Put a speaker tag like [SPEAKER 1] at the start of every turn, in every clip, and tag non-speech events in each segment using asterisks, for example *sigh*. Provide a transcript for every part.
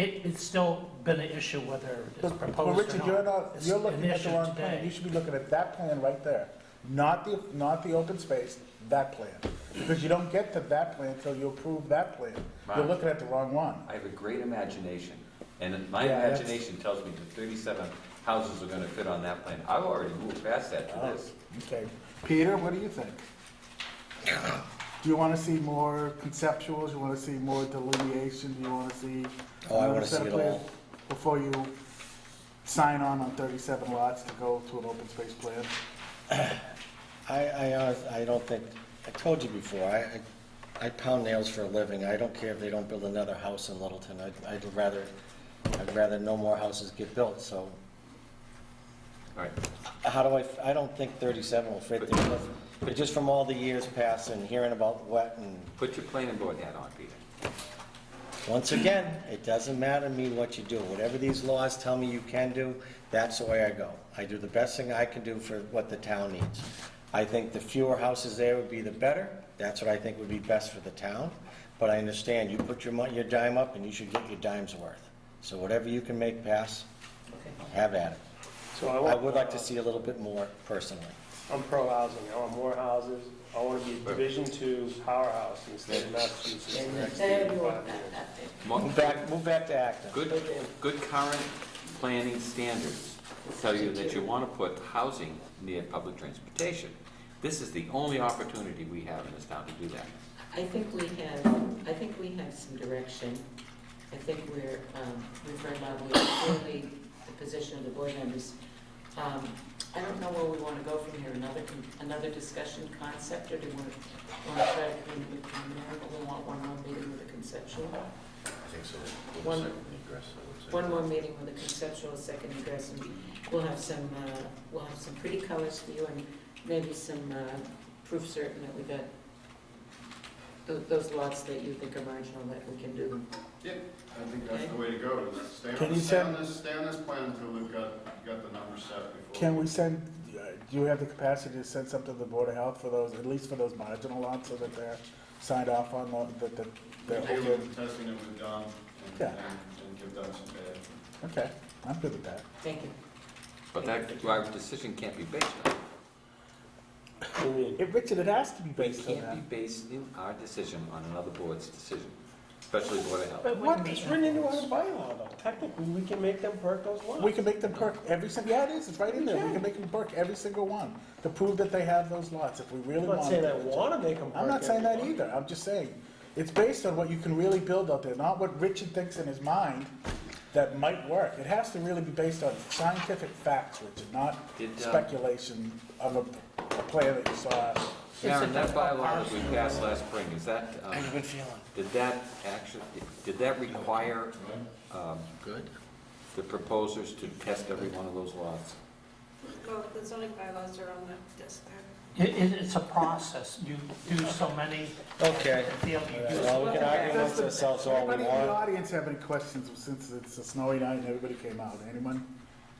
[SPEAKER 1] It, it's still been an issue whether it's proposed or
[SPEAKER 2] Well,
[SPEAKER 1] not.
[SPEAKER 2] Richard, you're not,
[SPEAKER 1] It's
[SPEAKER 2] you're
[SPEAKER 1] an
[SPEAKER 2] looking at
[SPEAKER 1] issue
[SPEAKER 2] the wrong
[SPEAKER 1] today.
[SPEAKER 2] plan. You should be looking at that plan right there, not the, not the open space, that plan. Because you don't get to that plan until you approve that plan. You're
[SPEAKER 3] Right.
[SPEAKER 2] looking at the wrong one.
[SPEAKER 3] I have a great imagination, and my
[SPEAKER 2] Yeah, that's-
[SPEAKER 3] imagination tells me that 37 houses are going to fit on that plan. I've already moved past that to this.
[SPEAKER 2] Okay. Peter, what do you think? Do you want to see more conceptuals? You want to see more delineation? Do you want to see?
[SPEAKER 4] Oh, I
[SPEAKER 2] another
[SPEAKER 4] wanna
[SPEAKER 2] set
[SPEAKER 4] see
[SPEAKER 2] of
[SPEAKER 4] it all.
[SPEAKER 2] plans Before you sign on on 37 lots to go to an open space plan?
[SPEAKER 4] I, I, honest- I don't think, I told you before, I, I- I pound nails for a living. I don't care if they don't build another house in Littleton. I'd, I'd rather, I'd rather no more houses get built, so
[SPEAKER 2] Oh.
[SPEAKER 3] All right,
[SPEAKER 4] how do I, f- I don't think thirty-seven will fit there. but- But just from all the years past and hearing about wet and,
[SPEAKER 3] put your planning board hat on, Peter.
[SPEAKER 4] once again, it doesn't matter to me what you do. Whatever these laws tell me you can do, that's the way I go. I do the best thing I can do for what the town needs. I think the fewer houses there would be the better. That's what I think would be best for the town. But I understand, you put your mon, your dime up and you should get your dime's worth. So whatever you can make pass, have at it.
[SPEAKER 5] So I
[SPEAKER 4] I
[SPEAKER 5] want,
[SPEAKER 4] would like to see a little bit more personally.
[SPEAKER 5] I'm pro-housing, I want more houses, I want to be a Division Two powerhouse in the state of Massachusetts in the next
[SPEAKER 6] There you are.
[SPEAKER 5] five years.
[SPEAKER 3] Mo-
[SPEAKER 4] Move back, move back to Acton.
[SPEAKER 3] Good, good current planning standards tell you that you want to put housing near public transportation. This is the only opportunity we have in this town to do that.
[SPEAKER 6] I think we have, I think we have some direction. I think we're, um, we've read out, we clearly, the position of the board members. Um, I don't know where we want to go from here, another, con- another discussion concept, or do we want to try to bring it preliminary? We want one more meeting with a conceptual?
[SPEAKER 7] I think so. With
[SPEAKER 6] One-
[SPEAKER 7] a second egress, I would say.
[SPEAKER 6] One more meeting with a conceptual, second address, and we'll have some, uh, we'll have some pretty colors for you, and maybe some uh, proof certain that we got tho- those lots that you think are marginal, that we can do them.
[SPEAKER 8] I think that's the way to go, is stay
[SPEAKER 2] Can
[SPEAKER 8] on,
[SPEAKER 2] you
[SPEAKER 8] stay
[SPEAKER 2] send-
[SPEAKER 8] on this, stay on this plan until we've got, got the numbers set before.
[SPEAKER 2] Can we send, uh, do you have the capacity to send something to the Board of Health for those, at least for those marginal lots, so that they're signed off on, the- that, that,
[SPEAKER 8] Take a
[SPEAKER 2] they're
[SPEAKER 8] look
[SPEAKER 2] okay?
[SPEAKER 8] at the testing that we've done and,
[SPEAKER 2] Yeah.
[SPEAKER 8] and and give them some data.
[SPEAKER 2] Okay, I'm good with that.
[SPEAKER 6] Thank you.
[SPEAKER 3] But that, our decision can't be based on,
[SPEAKER 5] What do you mean?
[SPEAKER 2] If, Richard, it has to be
[SPEAKER 3] we
[SPEAKER 2] based on that.
[SPEAKER 3] can't be basing our decision on another board's decision, especially Board of Health.
[SPEAKER 5] But what is written into our bylaw though? Technically, we can make them perk those lots.
[SPEAKER 2] We can make them perk every single, yeah, it is, it's right in there, we can make them perk every single one, to prove that they have those lots, if we really
[SPEAKER 5] I'm
[SPEAKER 2] want.
[SPEAKER 5] not saying I
[SPEAKER 2] to.
[SPEAKER 5] want to make them perk.
[SPEAKER 2] I'm not saying that
[SPEAKER 5] everyone.
[SPEAKER 2] either, I'm just saying, it's based on what you can really build out there, not what Richard thinks in his mind that might work. It has to really be based on scientific facts, Richard, not
[SPEAKER 3] Did, um,
[SPEAKER 2] speculation of a, a plan that you saw.
[SPEAKER 3] Karen, that bylaw that we passed last spring, is that, um,
[SPEAKER 4] How you been feeling?
[SPEAKER 3] Did that actually, did that require um,
[SPEAKER 4] Good.
[SPEAKER 3] the proposers to test every one of those lots?
[SPEAKER 9] Well, the zoning bylaws are on the desk there.
[SPEAKER 1] It, it- it's a process. You do so many,
[SPEAKER 4] Okay.
[SPEAKER 1] feel you do
[SPEAKER 4] Well, we can argue
[SPEAKER 2] Does
[SPEAKER 4] amongst
[SPEAKER 2] the-
[SPEAKER 4] ourselves all we
[SPEAKER 2] Anybody in the
[SPEAKER 4] want.
[SPEAKER 2] audience have any questions, since it's a snowy night and everybody came out, anyone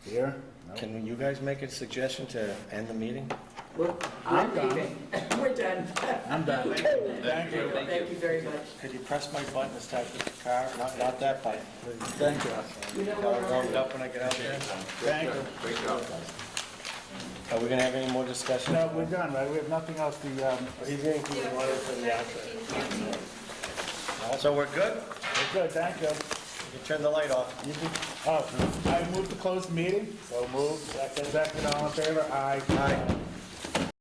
[SPEAKER 2] here? No?
[SPEAKER 4] Can you guys make a suggestion to end the meeting?
[SPEAKER 6] We're
[SPEAKER 2] I'm
[SPEAKER 6] we're leaving. We're done. *laughs*
[SPEAKER 2] I'm done.
[SPEAKER 3] Thank you.
[SPEAKER 6] Thank you very much.
[SPEAKER 4] Could you press my button to start the car? Not, not that button.
[SPEAKER 2] Thank you.
[SPEAKER 6] You know
[SPEAKER 4] I'll
[SPEAKER 6] what?
[SPEAKER 4] warm it up when I get out there.
[SPEAKER 2] Thank you.
[SPEAKER 3] Great job, guys.
[SPEAKER 4] Are we gonna have any more discussion?
[SPEAKER 2] No, we're done, right? We have nothing else to, um,
[SPEAKER 5] He's going to keep wanting from the outside.
[SPEAKER 9] 15, 14.
[SPEAKER 4] So we're good?
[SPEAKER 2] we're good, thank you.
[SPEAKER 4] You turn the light off.
[SPEAKER 2] You can- Oh, I move to close the meeting? So moved. Second, all in favor? Aye. Aye.